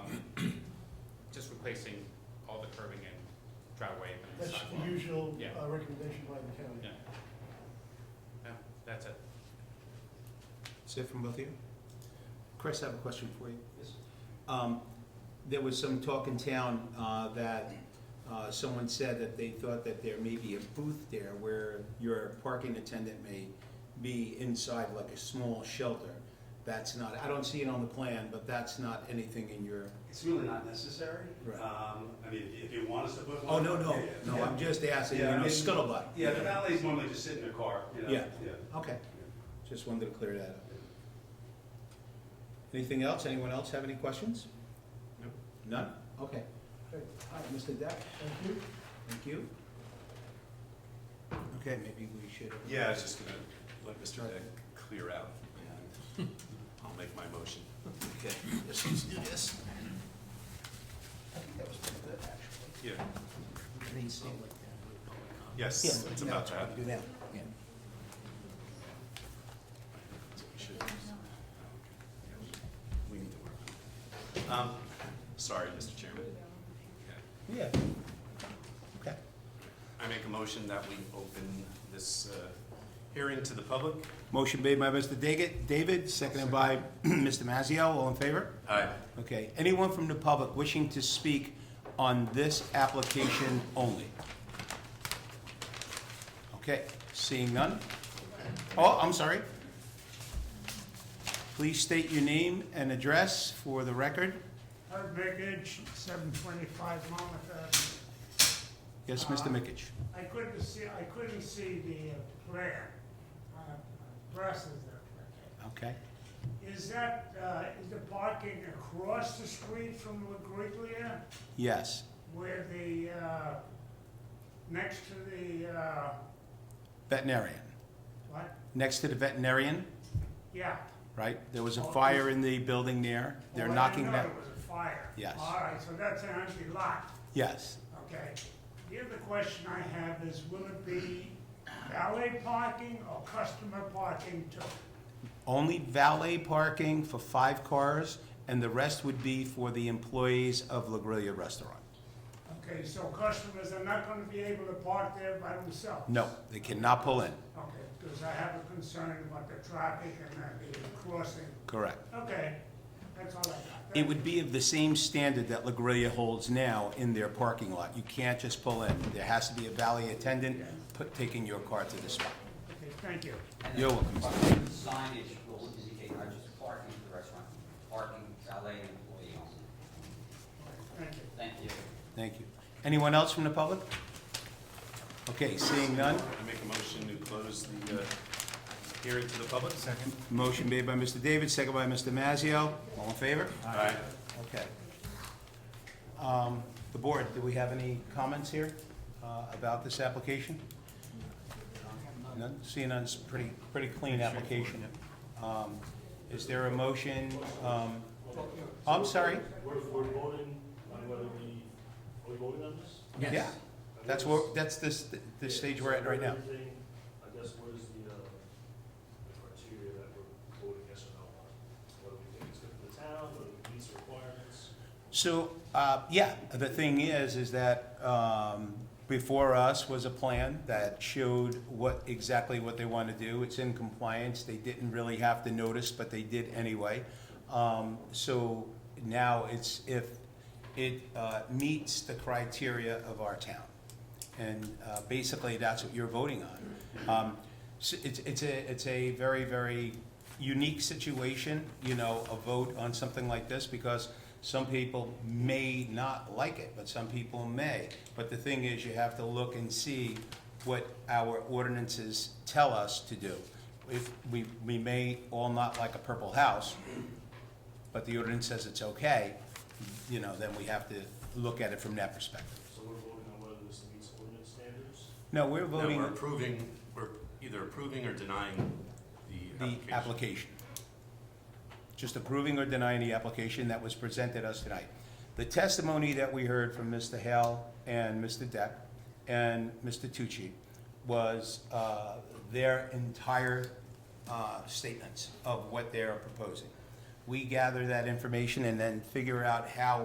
Um, replacing all the curbing and driveway and the That's sidewalk. the usual Yeah. uh, recommendation by the county. Yeah. Yeah, that's it. Is it from both of you? Chris, I have a question for you. Yes. Um, There was some talk in town uh, that uh, someone said that they thought that there may be a booth there where your parking attendant may be inside like a small shelter. That's not, I don't see it on the plan, but that's not anything in your, It's really not necessary. Right. Um, I mean, if you- if you want us to put oh, one. no, no, yeah, yeah, no, yeah. I'm just asking, you Yeah, I know, mean- scuttlebutt. Yeah, the valets normally just sit in their car, you know? Yeah. Okay, just wanted to clear that up. Anything else? Anyone else have any questions? No. None? Okay. Okay, All right, Mr. Deck? Thank you. Thank you. Okay, maybe we should. Yeah, I was just gonna let Mr. Deck clear out. and I'll make my motion. Okay, let's just do this. I think that was pretty good, actually. Yeah, Green seal like that. yes, Yeah, it's now about it's that. hard to do that. Yeah. We should- We need to work on it. Um, sorry, Mr. Chairman. Yeah. Yeah. Okay. I make a motion that we open this, uh, hearing to the public. Motion made by Mr. Daggett- David, seconded by Mr. Mazzio. All in favor? Aye. Okay, anyone from the public wishing to speak on this application only? Okay, seeing none? Oh, I'm sorry. Please state your name and address for the record. Herb Biggage, seven twenty-five Monmouth Avenue. Yes, Mr. Uh-huh. Mickich. I couldn't see, I couldn't see the uh, plan. Uh, Glasses there. Okay, Is that, uh, is the parking across the street from La Griglia yes, where the, uh, next to the, uh, veterinarian. what? Next to the veterinarian, Yeah. right? There was a fire in the building there. Oh, They're I didn't knocking know that. There was a fire. Yes. All right, so that's an empty lot. Yes, Okay, the other question I have is, will it be valet parking or customer parking too? Only valet parking for five cars, and the rest would be for the employees of La Grilla Restaurant. Okay, so customers are not gonna be able to park there by themselves? No, they cannot pull in. Okay, because I have a concern about the traffic and uh, the crossing. Correct. Okay, that's all I got. It would be of the same standard that La Grilla holds now in their parking lot. You can't just pull in. There has to be a valet attendant put, taking your car to the spot. Okay, thank you. You're welcome. Parking Signage will indicate not just parking for the restaurant, parking valet and employee only. Thank you. Thank you. Thank you. Anyone else from the public? Okay, seeing none. I make a motion to close the, uh, hearing to the public. Second. Motion made by Mr. David, second by Mr. Mazzio. All in favor? Aye. Okay. Um, The board, do we have any comments here uh, about this application? None, seeing none, it's a pretty, pretty clean application. Um, Is there a motion? um, I'm sorry? We're, we're voting on whether we, are we voting on this? Yeah, that's what, that's this, this stage we're at right now. Everything, I guess, what is the, uh, the criteria that we're voting yes or no on? Whether we think it's good for the town, whether it meets the requirements? So, uh, yeah, the thing is, is that um, before us was a plan that showed what, exactly what they want to do. It's in compliance, they didn't really have to notice, but they did anyway. Um, So now it's if it uh, meets the criteria of our town. And uh, basically, that's what you're voting on. Um, s- It's, it's a, it's a very, very unique situation, you know, a vote on something like this, because some people may not like it, but some people may. But the thing is, you have to look and see what our ordinances tell us to do. If, we, we may all not like a purple house, but the ordinance says it's okay, you know, then we have to look at it from that perspective. So we're voting on whether this meets ordinance standards? No, we're No, voting we're approving, we're either approving or denying the the application. application. Just approving or denying the application that was presented us tonight. The testimony that we heard from Mr. Hale and Mr. Deck and Mr. Tucci was uh, their entire uh, statements of what they're proposing. We gather that information and then figure out how